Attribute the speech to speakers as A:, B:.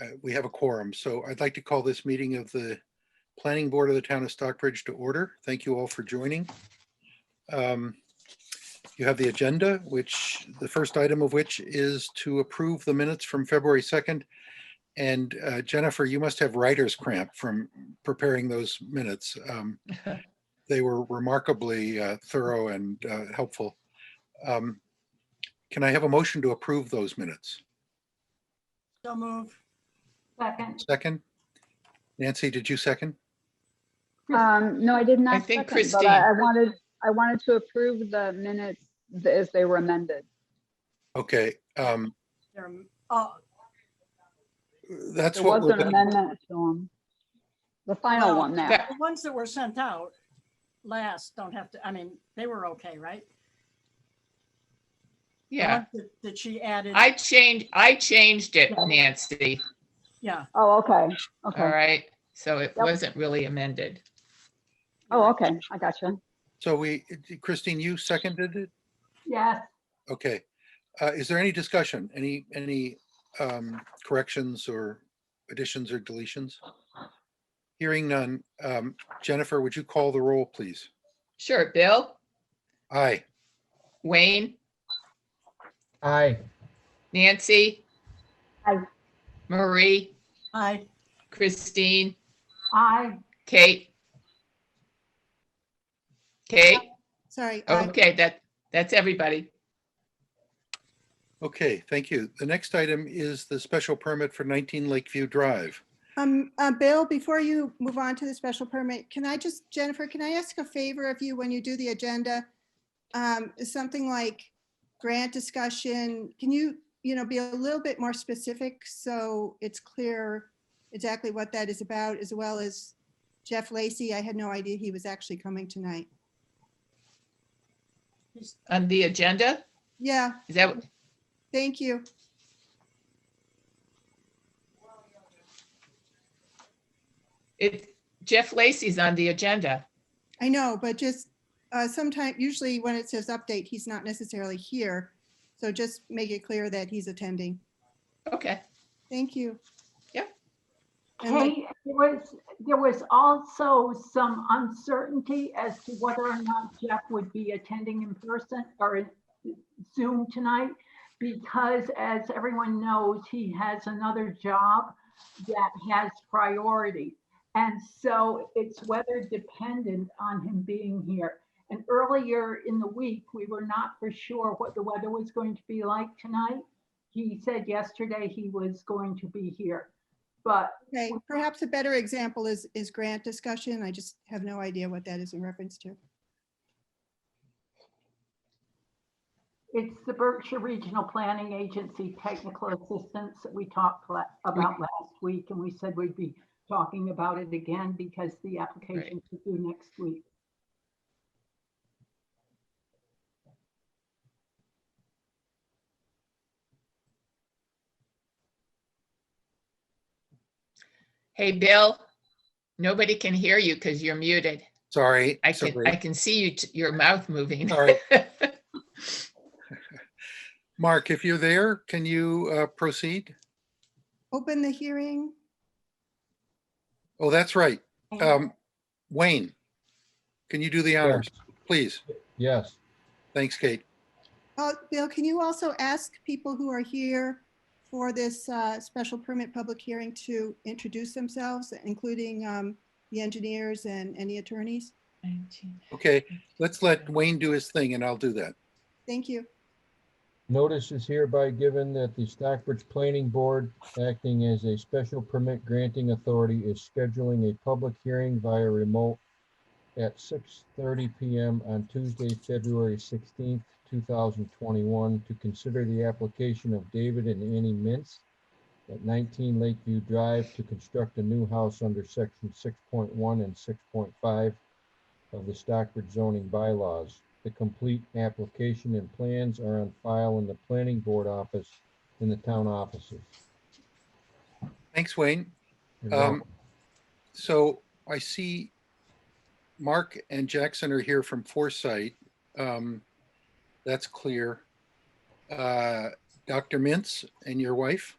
A: uh, we have a quorum, so I'd like to call this meeting of the Planning Board of the Town of Stockbridge to order. Thank you all for joining. Um, You have the agenda, which, the first item of which is to approve the minutes from February 2nd. And uh, Jennifer, you must have writer's cramp from preparing those minutes. Um, They were remarkably uh, thorough and uh, helpful. Um, Can I have a motion to approve those minutes?
B: So move.
C: Second,
A: Second? Nancy, did you second?
D: Um, no, I did not.
E: think
D: second, but I I wanted, I wanted to approve the minutes th- as they were amended.
A: Okay, um,
B: There- Oh,
A: that's
D: There
A: what
D: was
A: we're,
D: an
A: gonna-
D: amendment to them. The final
B: Oh,
D: one now.
E: that-
B: the ones that were sent out last don't have to, I mean, they were okay, right? The
E: Yeah,
B: ones that- That she added,
E: I changed, I changed it,
B: Yeah.
E: Nancy,
B: yeah.
D: Oh, okay,
E: all
D: okay.
E: right? So it
D: Yep.
E: wasn't really amended.
D: Oh, okay, I gotcha.
A: so we, Christine, you seconded it?
C: yes,
A: Okay. Uh, is there any discussion? Any, any, um, corrections or additions or deletions? Hearing none. Um, Jennifer, would you call the roll, please?
E: Sure, Bill,
A: Aye.
E: Wayne,
F: Aye.
E: Nancy?
D: Aye.
E: Marie,
B: I,
E: Christine,
C: I,
E: Kate? Kate,
G: Sorry. uh, I-
E: okay, that, that's everybody.
A: Okay, thank you. The next item is the special permit for 19 Lakeview Drive.
G: Um, uh, Bill, before you move on to the special permit, can I just, Jennifer, can I ask a favor of you when you do the agenda? Um, something like grant discussion, can you, you know, be a little bit more specific so it's clear exactly what that is about, as well as Jeff Lacy, I had no idea he was actually coming tonight.
E: On the agenda,
G: Yeah,
E: is that, what-
G: thank you.
E: it, Jeff Lacy's on the agenda.
G: I know, but just uh, sometime, usually when it says update, he's not necessarily here. So just make it clear that he's attending.
E: Okay,
G: Thank you.
E: Yeah.
G: And like-
C: Kate, there was, there was also some uncertainty as to whether or not Jeff would be attending in person or in Zoom tonight. Because as everyone knows, he has another job that has priority. And so it's weather dependent on him being here. And earlier in the week, we were not for sure what the weather was going to be like tonight. He said yesterday he was going to be here. But
G: Okay, perhaps a better example is, is grant discussion. I just have no idea what that is in reference to.
C: It's the Berkshire Regional Planning Agency Technical Assistance that we talked la- about last week, and we said we'd be talking about it again because the application is due next week.
E: hey, Bill, nobody can hear you because you're muted.
A: Sorry.
E: I can,
A: sorry,
E: I can see you, t- your mouth moving.
A: Sorry. Mark, if you're there, can you, uh, proceed?
G: Open the hearing.
A: Oh, that's right. Um, Wayne, can you do the honors, please?
F: Yes.
A: Thanks, Kate.
G: Uh, Bill, can you also ask people who are here for this uh, special permit public hearing to introduce themselves, including um, the engineers and any attorneys?
A: Okay, let's let Wayne do his thing and I'll do that.
G: Thank you.
F: Notice is hereby given that the Stockbridge Planning Board, acting as a special permit granting authority, is scheduling a public hearing via remote at six thirty PM on Tuesday, February sixteenth, two thousand twenty-one, to consider the application of David and Annie Mintz at nineteen Lakeview Drive to construct a new house under section six point one and six point five of the Stockbridge zoning bylaws. The complete application and plans are on file in the planning board office in the town offices.
A: Thanks, Wayne.
F: You're
A: Um,
F: welcome.
A: so I see Mark and Jackson are here from Foresight. Um, that's clear. Uh, Dr. Mintz and your wife?